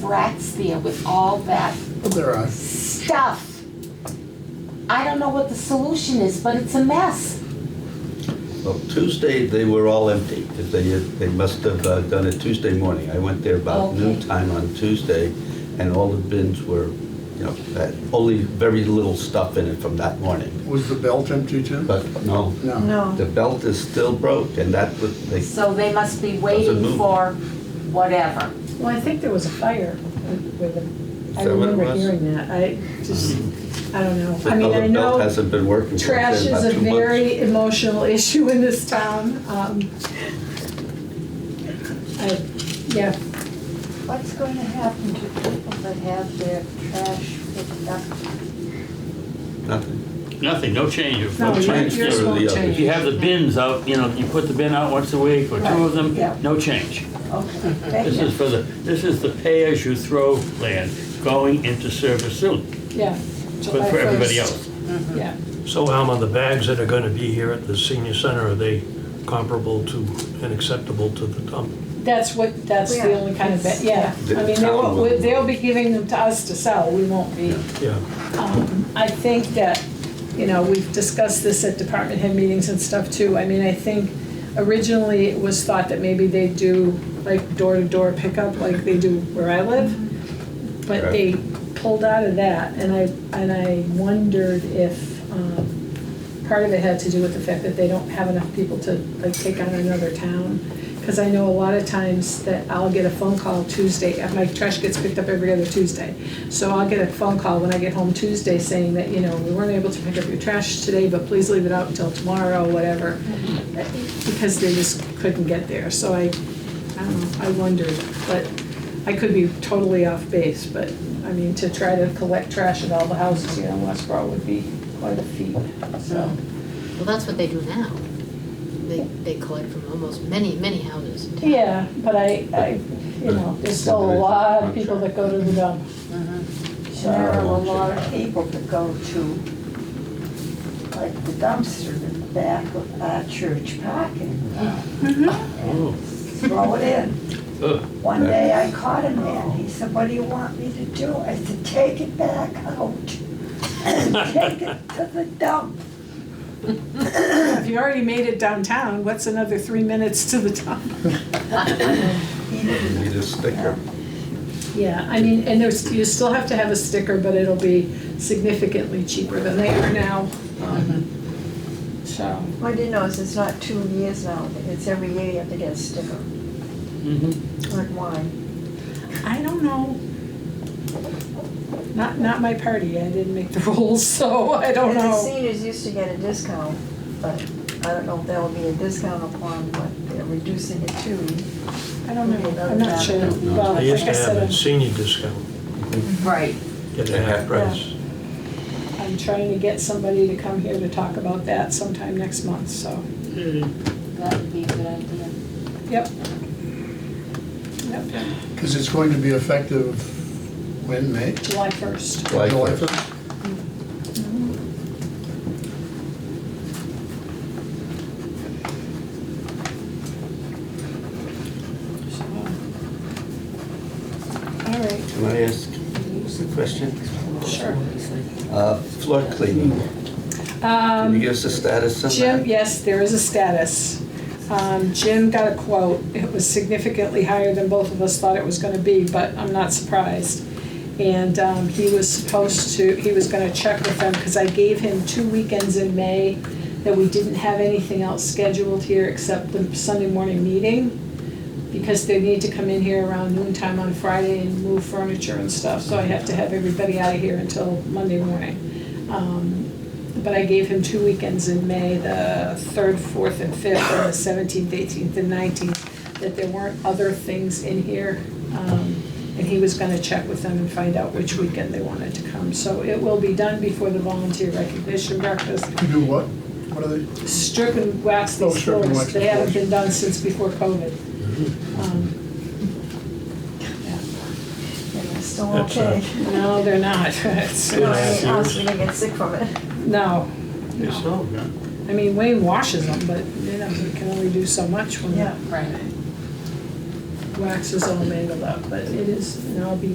rats there with all that But There are. stuff. I don't know what the solution is, but it's a mess. Well, Tuesday, they were all empty, 'cause they, they must have uh, done it Tuesday morning. I went there about Okay. noon time on Tuesday, and all the bins were, you know, had only very little stuff in it from that morning. Was the belt empty too? But no, No. the belt is still broke, and that was, they, So they must be waiting move. for whatever. Well, I think there was a fire with the, I that what it remember was? hearing that. I just, I don't know. I the mean, I belt know hasn't been working. for trash about is a two months. very emotional issue in this town. Um, I, yeah, What's going to happen to people that have their trash picked up? Nothing. Nothing, no change. If- no, One your- change yours or won't the other. change. If you have the bins out, you know, you put the bin out once a week or two of them, yeah. no change. Oh, Okay, This thank is you. for the, this is the pay-as-you-throw plan going into service soon, Yeah. but July for everybody 1st. else. Yeah. So Alma, the bags that are gonna be here at the senior center, are they comparable to and acceptable to the dump? That's what, that's the Yeah. only kind of, bet- yeah. The I mean, town will- they'll, they'll be giving them to us to sell. We won't be. Yeah, Um, I think that, you know, we've discussed this at department head meetings and stuff too. I mean, I think originally it was thought that maybe they do like door-to-door pickup like they do where I live. But they pulled out of that and I, and I wondered if, um, part of it had to do with the fact that they don't have enough people to like take on another town. Cause I know a lot of times that I'll get a phone call Tuesday, uh, my trash gets picked up every other Tuesday. So I'll get a phone call when I get home Tuesday saying that, you know, we weren't able to pick up your trash today, but please leave it out until tomorrow, whatever. Because they just couldn't get there, so I, I don't know, I wondered, but I could be totally off base, but, I mean, to try to collect trash at all the houses here in Westboro would be quite a feat, so. Well, that's what they do now. They, they collect from almost many, many houses in town. Yeah, but I, I, you know, there's still a lot of people that go to the dump. So There are a lot of people that go to, like the dumpster in the back of our church parking lot Oh, and throw it in. ugh. One day I caught a man, he said, what do you want me to do? I said, take it back out and take it to the dump. If you already made it downtown, what's another three minutes to the dump? He didn't You Need a sticker. Yeah, I mean, and there's, you still have to have a sticker, but it'll be significantly cheaper than they are now. um, So, What I didn't know is it's not two years now, it's every year you have to get a sticker, Mhm. like wine. I don't know. Not, not my party, I didn't make the rules, so I don't The know. seniors used to get a discount, but I don't know if there will be a discount upon what they're reducing it to. I don't know, I'm not sure. Well, they used like I to have said, um, a I'm- senior discount, Right. get a half price. I'm trying to get somebody to come here to talk about that sometime next month, so. That would be a good idea. Yep. Yep, Because it's going to be effective when, May? July 1st. Like- July first? um, All right, Can I ask a question? sure. Uh, Floor cleaning, can you Um, give us a status on that? Jim, yes, there is a status. Um, Jim got a quote. It was significantly higher than both of us thought it was gonna be, but I'm not surprised. And um, he was supposed to, he was gonna check with them, because I gave him two weekends in May that we didn't have anything else scheduled here except the Sunday morning meeting, because they need to come in here around noon time on Friday and move furniture and stuff, so I have to have everybody out of here until Monday morning. Um, But I gave him two weekends in May, the third, fourth, and fifth, and the seventeenth, eighteenth, and nineteenth, that there weren't other things in here. Um, And he was gonna check with them and find out which weekend they wanted to come. So it will be done before the volunteer recognition breakfast, To do what? What are they? strip and wax Oh, these strip and floors, wax they the haven't floors. Mm-hmm. been done since before COVID. Um, And it's still That's okay. No, they're not, It's- Good. No, Yeah, I was serious. gonna get sick from it. no, It's no. all done. I mean, Wayne washes them, but, you know, he can only do so much when Yeah. the Right. wax is all mangled up, but it is, and I'll be